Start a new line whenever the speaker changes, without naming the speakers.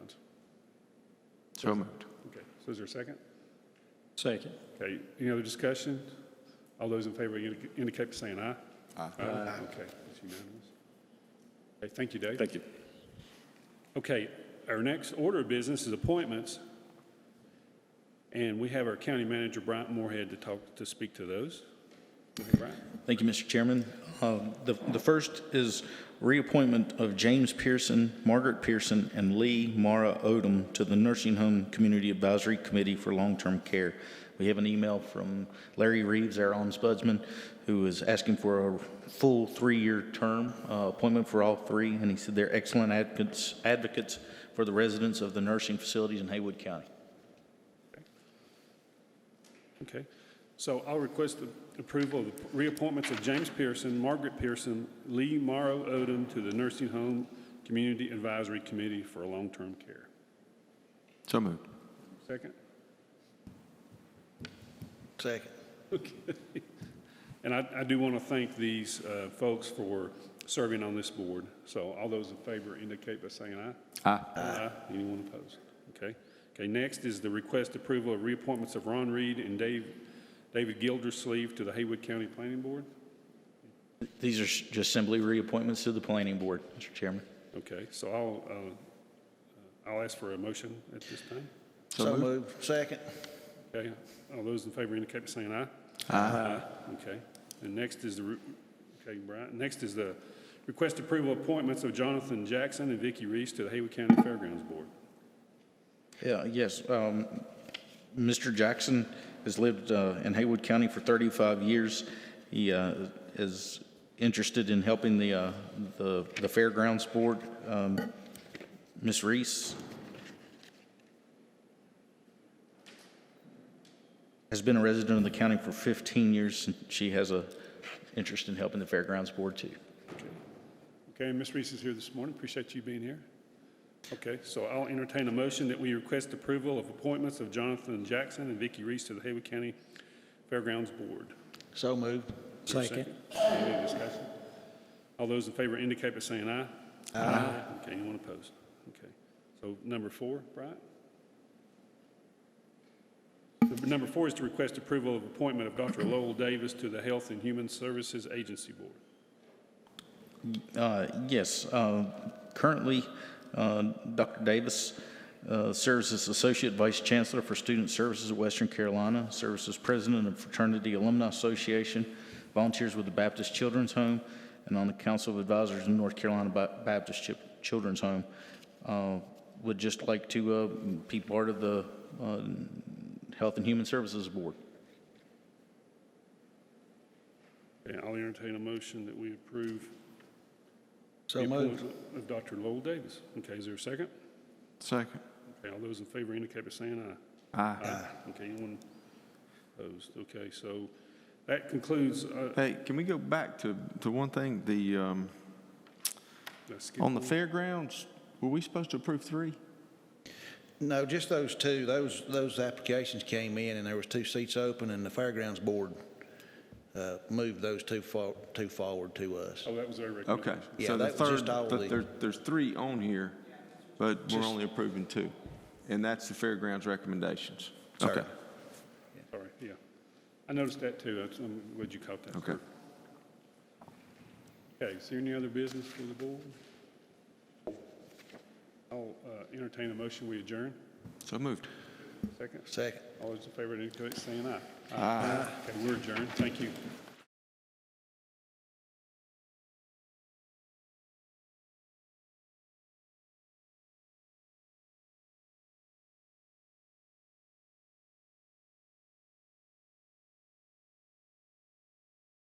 So moved.
Okay, so is there a second?
Second.
Okay, any other discussion? All those in favor indi- indicate by saying aye. Aye. Okay, it's unanimous. Okay, thank you, Dave.
Thank you.
Okay, our next order of business is appointments. And we have our county manager, Bryant Moorhead, to talk, to speak to those. Okay, Bryant?
Thank you, Mr. Chairman. Um, The the first is reappointment of James Pearson, Margaret Pearson, and Lee Mara Odom to the Nursing Home Community Advisory Committee for Long-Term Care. We have an email from Larry Reeves, our ombudsman, who is asking for a full three-year term uh, appointment for all three, and he said they're excellent advocates advocates for the residents of the nursing facilities in Haywood County.
Okay, so I'll request the approval of the reappointments of James Pearson, Margaret Pearson, Lee Morrow Odom to the Nursing Home Community Advisory Committee for Long-Term Care.
So moved.
Second?
Second.
Okay. And I, I do want to thank these uh, folks for serving on this board. So all those in favor indicate by saying aye.
Aye.
Aye. Anyone opposed? Okay. Okay, next is the request approval of reappointments of Ron Reed and Dave, David Gildersleeve to the Haywood County Planning Board.
These are s- just simply reappointments to the Planning Board, Mr. Chairman.
Okay, so I'll, uh, I'll ask for a motion at this time.
So
moved. Second.
Okay, all those in favor indicate by saying aye. Aye. Okay, and next is the, re- okay, Brian, next is the request approval appointments of Jonathan Jackson and Vicky Reese to the Haywood County Fairgrounds Board.
Yeah, yes. um, Mr. Jackson has lived uh, in Haywood County for 35 years. He uh, is interested in helping the, uh, the the Fairgrounds Board. Um, Ms. Reese has been a resident of the county for 15 years. and She has a interest in helping the Fairgrounds Board, too.
Okay, and Ms. Reese is here this morning, appreciate you being here. Okay, so I'll entertain a motion that we request approval of appointments of Jonathan Jackson and Vicky Reese to the Haywood County Fairgrounds Board.
So moved.
Is there a
Second.
Any discussion? All those in favor indicate by saying aye. Aye. Okay, anyone opposed? Okay. So number four, Bryant? The- Number four is to request approval of appointment of Dr. Lowell Davis to the Health and Human Services Agency Board.
Uh, Yes. uh, Currently, uh, Dr. Davis uh, serves as Associate Vice Chancellor for Student Services at Western Carolina, serves as President of Fraternity Alumni Association, volunteers with the Baptist Children's Home, and on the Council of Advisors in North Carolina Ba- Baptist Chi- Children's Home. Uh, Would just like to uh, be part of the uh, Health and Human Services Board.
Okay, I'll entertain a motion that we approve.
So
the
moved.
appointment Of Dr. Lowell Davis. Okay, is there a second?
Second.
Okay, all those in favor indicate by saying aye.
Aye.
Okay, anyone opposed? Okay, so that concludes, uh,
Hey, can we go back to, to one thing? The, um,
let's skip
on the fairgrounds, were we supposed to approve three?
No, just those two. Those, those applications came in, and there was two seats open, and the Fairgrounds Board uh, moved those two for, two forward to us.
Oh, that was our
Okay.
recommendation.
Yeah,
So the
that was just
third,
all
the-
the-
there, there's three on here, but we're only approving two. And that's the fairgrounds recommendations.
Sorry.
Okay.
Sorry, yeah. I noticed that too. That's- I'm glad you caught that.
Okay.
Okay, is there any other business for the board? I'll uh, entertain a motion, we adjourn.
So moved.
Second,
Second.
all those in favor, indicate by saying aye. Aye. Okay, we're adjourned, thank you.